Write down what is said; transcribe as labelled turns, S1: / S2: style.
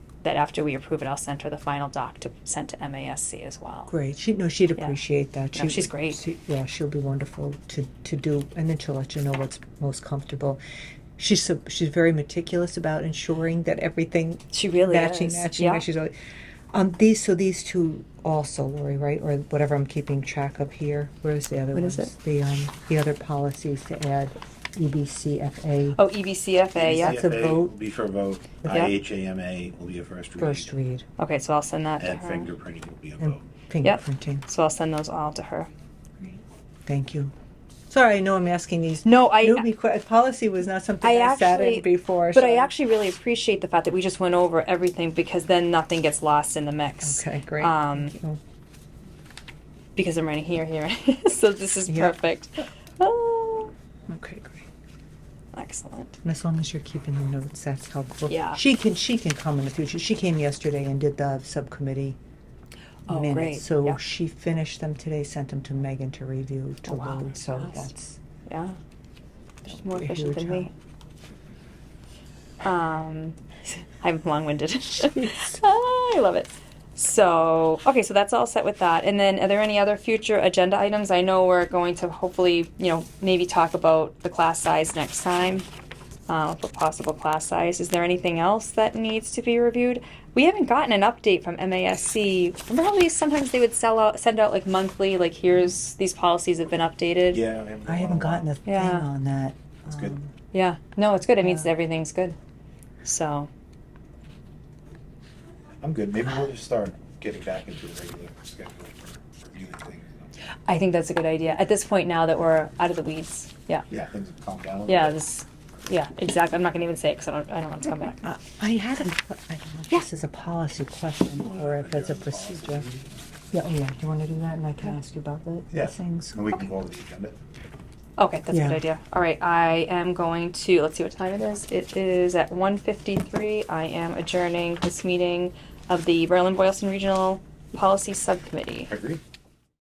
S1: that after we approve it, I'll send her the final doc to send to MASC as well.
S2: Great. She, no, she'd
S1: Yeah.
S2: appreciate that.
S1: No, she's great.
S2: she- yeah, she'll be wonderful to, to do, and then she'll let you know what's most comfortable. She's so, she's very meticulous about ensuring that everything
S1: She really
S2: matching,
S1: is.
S2: matching,
S1: yeah.
S2: matching. Always, um, these so these two also, Lori, right, or whatever I'm keeping track of here. Where's the other
S3: What
S2: one?
S3: is
S2: The um, the other policies to add, E EBCFA
S1: Oh, EBCFA, yeah.
S2: It's a
S4: CFA
S2: vote.
S4: Will be for a vote.
S1: Yeah.
S4: IHAMA will be a first read.
S2: first read,
S1: Okay, so I'll send that to
S4: And
S1: her.
S4: fingerprinting will be a
S2: And-
S4: vote.
S2: fingerprinting.
S1: So I'll send those all to her.
S2: Thank you. Sorry, I know I'm asking these.
S1: No, I
S2: newbie que- policy was not something
S1: I
S2: I, sat
S1: actually-
S2: in before.
S1: But
S2: so-
S1: I actually really appreciate the fact that we just went over everything because then nothing gets lost in the mix.
S2: Okay, great. Oh,
S1: Um,
S2: Thank you.
S1: Because I'm running here, here. so this is
S2: Yeah.
S1: perfect. Oh,
S2: Okay, great.
S1: excellent.
S2: And as long as you're keeping the notes, that's helpful.
S1: Yeah.
S2: She can, she can come in the future. She came yesterday and did the subcommittee
S1: Oh,
S2: minutes.
S1: great.
S2: So
S1: Yeah.
S2: she finished them today, sent them to Megan to review to
S1: Oh, wow.
S2: load. So
S1: Nice.
S2: that's
S1: Yeah. She's more
S2: You're
S1: efficient than
S2: huge,
S1: me. Um, I'm long winded. I love it. So, okay, so that's all set with that. And then, are there any other future agenda items? I know we're going to hopefully, you know, maybe talk about the class size next time uh, for possible class size. Is there anything else that needs to be reviewed? We haven't gotten an update from MASC. Remember how they sometimes they would sell out, send out like monthly, like here's these policies have been updated.
S4: Yeah.
S2: I haven't gotten a thing
S1: Yeah.
S2: on that.
S4: That's good.
S2: Um,
S1: Yeah, no, it's good. It means
S2: Yeah.
S1: everything's good. So,
S4: I'm good. Maybe we'll just start getting back into the regular schedule for reviewing things.
S1: I think that's a good idea. At this point, now that we're out of the weeds, yeah,
S4: Yeah, things have calmed down. a little
S1: yeah,
S4: bit.
S1: this, yeah, exactly. I'm not gonna even say it because I don't, I don't want to come back.
S2: Uh, I had a, I don't know if this is a policy question or if it's a procedure. Yeah, oh yeah, do you want to do that and I can ask you about the the
S4: Yeah.
S2: things?
S4: And we can go over the agenda.
S1: Okay, that's a
S2: Yeah.
S1: good idea. All right, I am going to let's see what time it is. It is at 1:53. I am adjourning this meeting of the Berlin Boylston Regional Policy Subcommittee.
S4: Agreed.